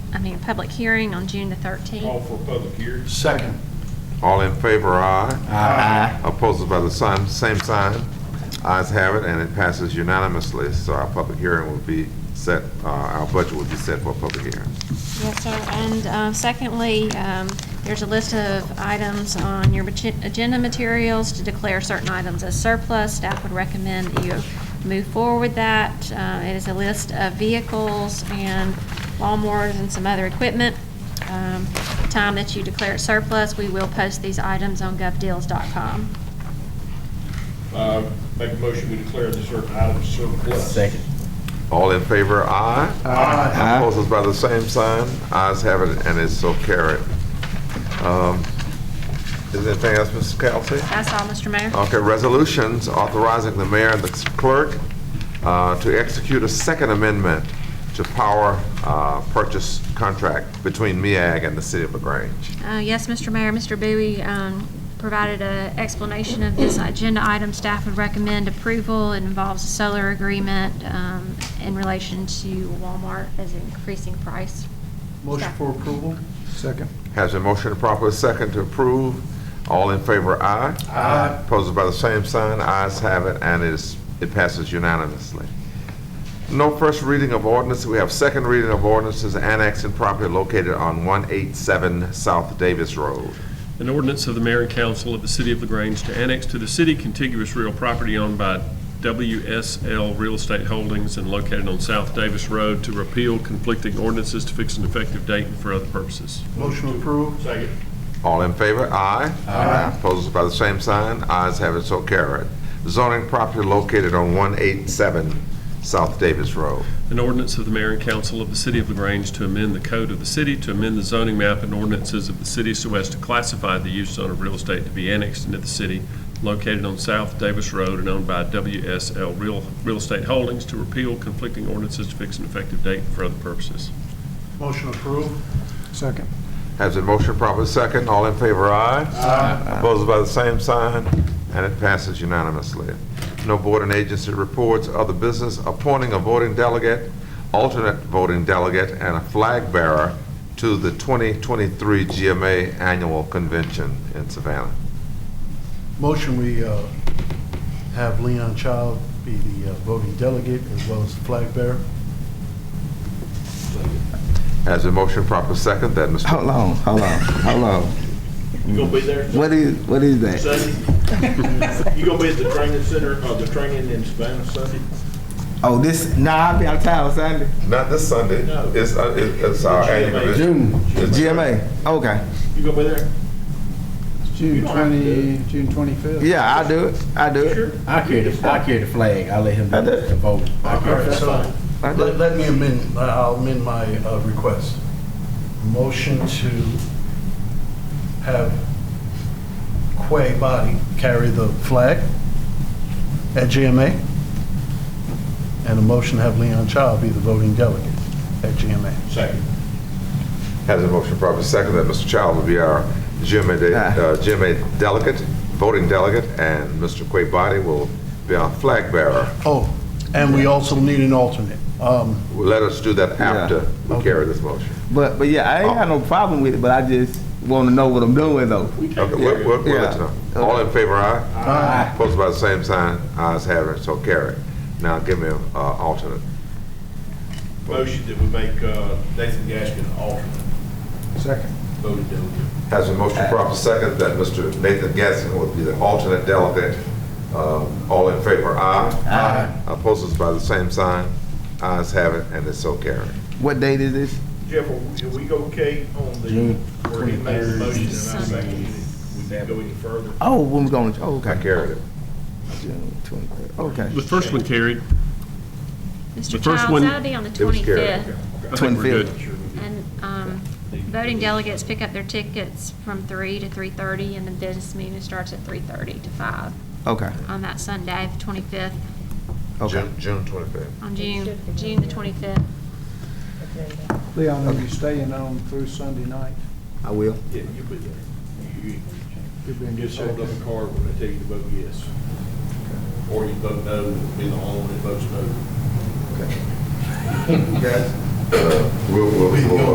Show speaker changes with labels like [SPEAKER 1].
[SPEAKER 1] I mean, public hearing on June the 13th.
[SPEAKER 2] Call for public hearing.
[SPEAKER 3] Second.
[SPEAKER 4] All in favor, aye.
[SPEAKER 3] Aye.
[SPEAKER 4] Opposed by the same, same sign. Ayes have it, and it passes unanimously. So our public hearing will be set, uh, our budget will be set for a public hearing.
[SPEAKER 1] Yes, sir. And uh, secondly, um, there's a list of items on your machi- agenda materials to declare certain items as surplus. Staff would recommend that you move forward that. Uh, It is a list of vehicles and lawnmowers and some other equipment. Um, the Time that you declare it surplus, we will post these items on govdeals.com.
[SPEAKER 2] Uh, Make a motion, we declare the certain items surplus.
[SPEAKER 5] Second.
[SPEAKER 4] All in favor, aye.
[SPEAKER 3] Aye.
[SPEAKER 4] Opposed by the same sign. Ayes have it, and it's so carried. Um, Is there anything else, Mrs. Kelsey?
[SPEAKER 1] That's all, Mr. Mayor.
[SPEAKER 4] Okay, resolutions authorizing the mayor and the clerk uh, to execute a second amendment to power uh, purchase contract between MEAG and the city of LaGrange.
[SPEAKER 1] Uh, Yes, Mr. Mayor, Mr. Bowie um, provided an explanation of this agenda item. Staff would recommend approval. It involves a seller agreement um, in relation to Walmart as an increasing price.
[SPEAKER 3] Motion for approval? Second.
[SPEAKER 4] Has been motion and properly second to approve. All in favor, aye.
[SPEAKER 3] Aye.
[SPEAKER 4] Opposed by the same sign, ayes have it, and it is, it passes unanimously. No first reading of ordinance, we have second reading of ordinances annexing property located on 187 South Davis Road.
[SPEAKER 6] An ordinance of the mayor and council of the city of LaGrange to annex to the city contiguous real property owned by WSL Real Estate Holdings and located on South Davis Road to repeal conflicting ordinances to fix an effective date and for other purposes.
[SPEAKER 3] Motion approved?
[SPEAKER 2] Second.
[SPEAKER 4] All in favor, aye. Aye. Opposed by the same sign, ayes have it, so carried. Zoning property located on 187 South Davis Road.
[SPEAKER 6] An ordinance of the mayor and council of the city of LaGrange to amend the code of the city, to amend the zoning map and ordinances of the city so as to classify the use zone of real estate to be annexed into the city located on South Davis Road and owned by WSL Real, Real Estate Holdings to repeal conflicting ordinances to fix an effective date and for other purposes.
[SPEAKER 3] Motion approved? Second.
[SPEAKER 4] Has a motion properly second, all in favor, aye. Aye. Opposed by the same sign, and it passes unanimously. No board and agency reports, other business, appointing a voting delegate, alternate voting delegate, and a flag bearer to the 2023 GMA Annual Convention in Savannah.
[SPEAKER 7] Motion, we uh, have Leon Child be the uh, voting delegate as well as the flag bearer.
[SPEAKER 4] Has a motion properly second, that Mr.
[SPEAKER 5] Hold on, hold on, hold on.
[SPEAKER 2] You gonna be there
[SPEAKER 5] What is, what is that?
[SPEAKER 2] Sunday? You gonna be at the training center, or the training in Savannah Sunday?
[SPEAKER 5] Oh, this, nah, I'll be out of town Sunday.
[SPEAKER 4] Not this Sunday,
[SPEAKER 2] No.
[SPEAKER 4] it's, uh, it- it's our
[SPEAKER 2] The
[SPEAKER 4] annual
[SPEAKER 2] GMA.
[SPEAKER 4] convention.
[SPEAKER 5] GMA, okay.
[SPEAKER 2] You gonna be there? You
[SPEAKER 3] June
[SPEAKER 2] don't have to do
[SPEAKER 3] 20, June 25th?
[SPEAKER 5] Yeah, I'll do it, I'll do it.
[SPEAKER 2] Sure.
[SPEAKER 8] I carry the, I carry the flag. I'll let him
[SPEAKER 5] I did.
[SPEAKER 8] the vote.
[SPEAKER 2] All right, that's
[SPEAKER 7] so
[SPEAKER 2] fine.
[SPEAKER 5] I'll do
[SPEAKER 7] Let
[SPEAKER 5] it.
[SPEAKER 7] let me amend, I'll amend my uh, request. Motion to have Quay Body carry the flag at GMA, and a motion to have Leon Child be the voting delegate at GMA.
[SPEAKER 2] Second.
[SPEAKER 4] Has a motion properly second that Mr. Child will be our GMA, de-
[SPEAKER 5] Aye.
[SPEAKER 4] uh, GMA delegate, voting delegate, and Mr. Quay Body will be our flag bearer.
[SPEAKER 7] Oh, and we also need an alternate. Um,
[SPEAKER 4] Let us do that after we carry this motion.
[SPEAKER 5] But, but yeah, I ain't got no problem with it, but I just wanna know what I'm doing though.
[SPEAKER 4] Okay, we'll, we'll, we'll let you know.
[SPEAKER 5] Yeah. Uh,
[SPEAKER 4] All in favor, aye?
[SPEAKER 5] Aye.
[SPEAKER 4] Opposed by the same sign, ayes have it, so carried. Now give me an alternate.
[SPEAKER 2] Motion that we make uh, Nathan Gaskin alternate
[SPEAKER 3] Second.
[SPEAKER 2] voting delegate.
[SPEAKER 4] Has a motion properly second that Mr. Nathan Gasson will be the alternate delegate. Um, All in favor, aye? Aye. Opposed by the same sign, ayes have it, and it's so carried.
[SPEAKER 5] What date is this?
[SPEAKER 2] Jeff, are we- are we okay on the,
[SPEAKER 8] June
[SPEAKER 2] where he made the motion and I seconded it? We didn't go any further?
[SPEAKER 5] Oh, when we going, to- oh,
[SPEAKER 4] I
[SPEAKER 5] okay.
[SPEAKER 4] carried it.
[SPEAKER 5] June 23rd. Okay.
[SPEAKER 6] The first one carried. The
[SPEAKER 1] Mr.
[SPEAKER 6] first one-
[SPEAKER 1] Childs, that'll be on the
[SPEAKER 4] It was scary.
[SPEAKER 1] 25th.
[SPEAKER 6] I think we're good.
[SPEAKER 1] And um, voting delegates pick up their tickets from 3 to 3:30, and the business meeting starts at 3:30 to 5
[SPEAKER 5] Okay,
[SPEAKER 1] on that Sunday, the 25th,
[SPEAKER 5] okay.
[SPEAKER 4] June, June twenty-fifth.
[SPEAKER 1] on June, June the 25th.
[SPEAKER 3] Leon, are you staying on through Sunday night?
[SPEAKER 5] I will.
[SPEAKER 2] Yeah, you'll be there. You-
[SPEAKER 3] You'll be
[SPEAKER 2] you
[SPEAKER 3] in
[SPEAKER 2] Just
[SPEAKER 3] good
[SPEAKER 2] hold up
[SPEAKER 3] shape.
[SPEAKER 2] a card when I tell you to vote yes. Or you vote no, and be the only one that votes no.
[SPEAKER 4] Guys, uh, we'll, we'll, we'll